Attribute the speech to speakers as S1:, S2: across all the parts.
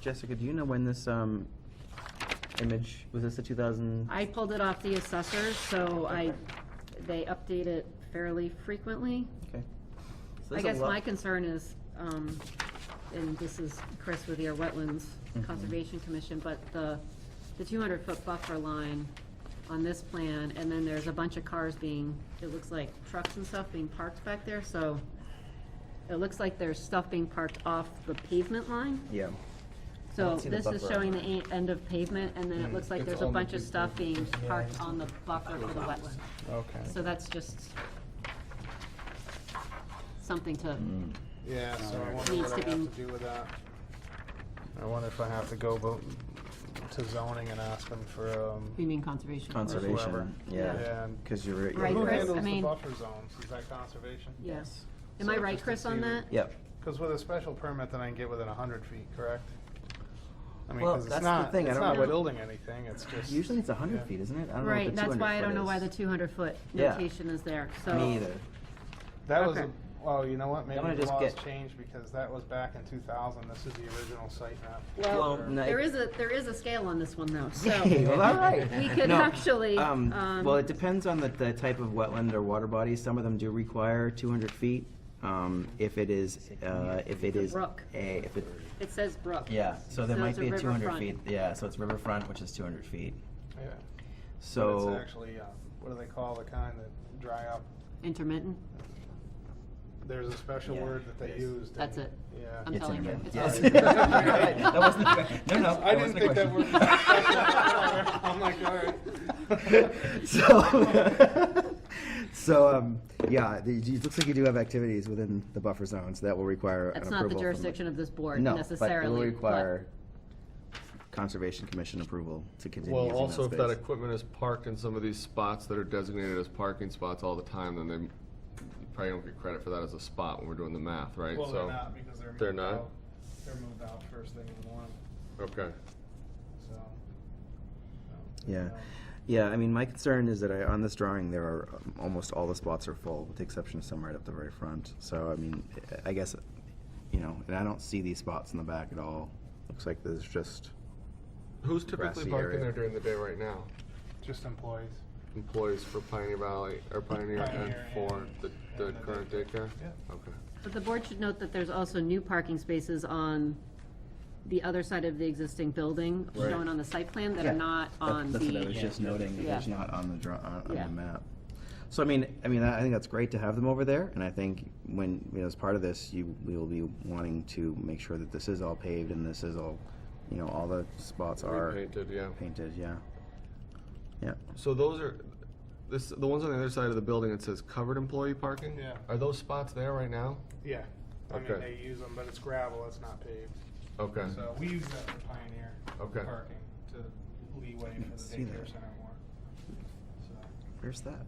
S1: Jessica, do you know when this, um, image, was this the two thousand?
S2: I pulled it off the assessors, so I, they update it fairly frequently.
S1: Okay. So
S2: I
S1: there's a
S2: guess
S1: lot-
S2: my concern is, um, and this is Chris with your Wetlands
S1: Mhm.
S2: Conservation Commission, but the, the two hundred foot buffer line on this plan, and then there's a bunch of cars being, it looks like trucks and stuff being parked back there, so it looks like there's stuff being parked off the pavement line.
S1: Yeah.
S2: So
S1: don't see the
S2: this is
S1: buffer. Hmm.
S2: showing the e- end of pavement, and then it looks like
S3: It's
S2: there's a
S3: on the
S2: bunch of
S3: big
S2: stuff being
S3: buffer. Yeah,
S2: parked
S3: it's
S2: on the buffer for the wetland.
S3: Okay.
S2: So that's just something to,
S1: Hmm. Mm.
S3: Yeah, so I wonder
S2: Needs
S3: what I
S2: to
S3: have
S2: be-
S3: to do with that. I wonder if I have to go vo- to zoning and ask them for, um,
S2: you mean conservation?
S1: Conservation,
S3: whoever.
S1: yeah,
S3: Yeah.
S1: because you're.
S2: Right,
S3: who
S2: Chris?
S3: handles
S2: I
S3: the
S2: mean-
S3: buffer zones? Is that conservation?
S2: Yes.
S3: Yeah.
S2: Am I
S3: So
S2: right,
S3: just to
S2: Chris, on
S3: see the-
S2: that?
S1: Yep.
S3: Because with a special permit, then I can get within a hundred feet, correct? I mean,
S1: Well,
S3: because
S1: that's
S3: it's
S1: the
S3: not,
S1: thing, I
S3: it's
S1: don't
S3: not
S1: know.
S3: building anything, it's just.
S1: Usually it's a
S3: yeah.
S1: hundred feet, isn't it? I don't know what the
S2: Right, that's
S1: 200
S2: why I
S1: foot
S2: don't know why
S1: is.
S2: the two hundred foot
S1: Yeah.
S2: notation is there, so.
S1: Me either.
S3: That was,
S2: Okay.
S3: a- well, you know what,
S1: gonna
S3: maybe the
S1: just
S3: laws
S1: get-
S3: changed because that was back in two thousand, this is the original site map.
S1: Well,
S2: Well,
S1: no,
S2: there
S1: it-
S2: is a, there is a scale on this one though,
S1: Okay,
S2: so.
S1: well, all right.
S2: We could
S1: No,
S2: actually,
S1: um,
S2: um,
S1: Well, it depends on the, the type of wetland or water body. Some of them do require two hundred feet. Um, if it is, uh, if it
S2: a
S1: is.
S2: brook.
S1: A, if it,
S2: It says brook.
S1: yeah, so there
S2: So
S1: might
S2: it's a
S1: be a two hundred
S2: riverfront.
S1: feet, yeah, so it's riverfront, which is two hundred feet.
S3: Yeah. But
S1: So.
S3: It's actually, uh, what do they call the kind that dry up?
S2: Intermittent,
S3: There's a special
S1: Yeah,
S3: word that
S1: it
S3: they
S1: is.
S3: used.
S2: That's
S3: and-
S2: it.
S3: Yeah.
S2: I'm
S1: It's
S2: telling you,
S1: intermittent.
S2: it's
S1: Yes.
S2: already-
S1: That wasn't the que- no, no,
S3: I
S1: that
S3: didn't
S1: wasn't the
S3: think that word.
S1: question.
S3: I'm like, all right.
S4: So, so, um, yeah, the- it looks like you do have activities within the buffer zones that will require an
S2: that's
S4: approval.
S2: not the
S4: from
S2: jurisdiction of this board
S4: No, but it will
S2: necessarily, but
S4: require Conservation Commission approval to continue
S5: Well,
S4: using that
S5: also if that
S4: space.
S5: equipment is parked in some of these spots that are designated as parking spots all the time, then they you probably don't get credit for that as a spot when we're doing the math, right?
S3: Well, they're
S5: So-
S3: not because they're
S5: They're
S3: moved
S5: not?
S3: out. They're moved out first thing in the morning,
S5: Okay.
S3: so. um,
S4: Yeah. Yeah, I mean, my concern is that I, on this drawing, there are, um, almost all the spots are full, with the exception of some right up the very front. So, I mean, I I guess, you know, and I don't see these spots in the back at all. Looks like there's just,
S5: Who's typically
S4: Grassy
S5: parking
S4: area.
S5: there during the day right now?
S3: Just employees.
S5: Employees for Pioneer Valley, or Pioneer and
S3: Pioneer
S5: for
S3: and-
S5: the, the
S3: and the
S5: current
S3: daycare.
S5: daycare?
S3: Yeah.
S5: Okay.
S2: But the board should note that there's also new parking spaces on the other side of the existing building,
S5: Right.
S2: shown on the site plan, that are
S4: Yeah.
S2: not
S4: That-
S2: on
S4: That's what I was
S2: the,
S4: just noting, that there's
S2: Yeah.
S4: not on the draw, on on
S2: Yeah.
S4: the map. So I mean, I mean, I I think that's great to have them over there, and I think when, you know, as part of this, you, we will be wanting to make sure that this is all paved and this is all, you know, all the spots are
S5: Repainted, yeah.
S4: painted, yeah. Yeah,
S5: So those are, this, the ones on the other side of the building, it says covered employee parking?
S3: Yeah.
S5: Are those spots there right now?
S3: Yeah, I mean,
S5: Okay.
S3: they use them, but it's gravel, it's not paved.
S5: Okay.
S3: So we use that for Pioneer.
S5: Okay.
S3: Parking to leeway for the
S4: See
S3: daycare
S4: that.
S3: center more. So,
S4: where's that?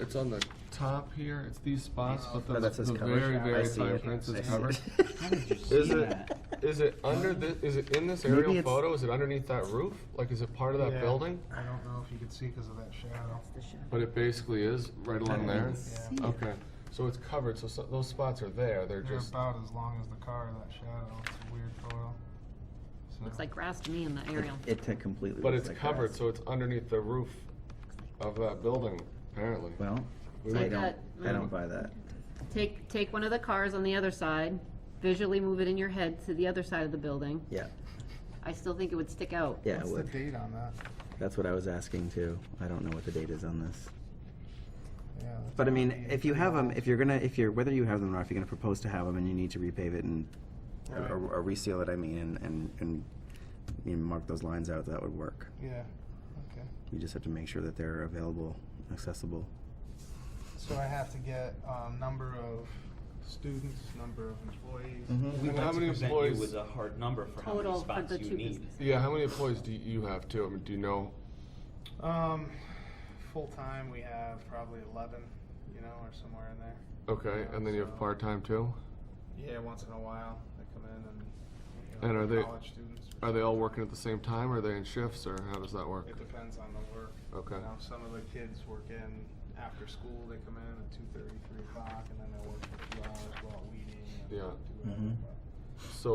S5: It's on the top here, it's these spots, but
S4: No,
S5: the,
S4: that says
S5: the
S4: covered.
S5: very,
S3: I
S5: very
S4: see
S5: fine
S4: it.
S5: print
S4: I
S5: is
S4: see
S5: covered.
S4: it.
S5: Is it, is it under the, is it in this
S4: Maybe
S5: aerial
S4: it's-
S5: photo? Is it underneath that roof? Like, is it part of
S3: Yeah.
S5: that building?
S3: I don't know if you could see because of that shadow.
S5: But it basically is right along there?
S3: see
S5: Okay, so it's covered, so, so those spots are there, they're
S3: They're
S5: just,
S3: about as long as the car, that shadow. It's a weird photo. So-
S2: looks like grass to me in the aerial.
S4: It took completely.
S5: but
S4: looks
S5: it's
S4: like
S5: covered,
S4: grass.
S5: so it's underneath the roof of that building, apparently.
S4: Well,
S2: So
S4: I
S2: I
S4: don't,
S2: got-
S4: I
S5: Mm.
S4: don't buy that.
S2: Take, take one of the cars on the other side, visually move it in your head to the other side of the building.
S4: Yeah,
S2: I still think it would stick out.
S4: yeah, it
S3: What's the
S4: would.
S3: date on that?
S4: That's what I was asking too. I don't know what the date is on this.
S3: Yeah, that's
S4: But I
S3: gotta
S4: mean,
S3: be
S4: if you have them,
S3: pretty
S4: if you're gonna, if you're, whether you have them or not, if you're gonna propose to have them and you need to repave it and,
S3: Right.
S4: or, or reseal it, I mean, and, and, and, you know, mark those lines out, that would work.
S3: old. Yeah, okay.
S4: You just have to make sure that they're available, accessible.
S3: So I have to get, um, number of students, number of employees.
S4: Mm-hmm.
S5: And
S6: We'd
S5: how
S6: like to
S5: many
S6: present you
S5: employees-
S6: with a hard number for how
S2: Total
S6: many
S2: for
S6: spots
S2: the two
S6: you need.
S2: businesses.
S5: Yeah, how many employees do you have too? I mean, do you know?
S3: Um, full-time, we have probably eleven, you know, or somewhere in there.
S5: Okay, and then you
S3: So-
S5: have part-time too?
S3: Yeah, once in a while, they come in and, you
S5: And
S3: know,
S5: are they-
S3: college students. or
S5: Are they all working at the same time, or are they in shifts, or how does that work?
S3: It depends on the work.
S5: Okay.
S3: You know, some of the kids work in after school, they come in at two thirty, three o'clock, and then they work for two hours while weeding and
S5: Yeah.
S3: do whatever.
S4: Mhm.
S3: but-
S5: So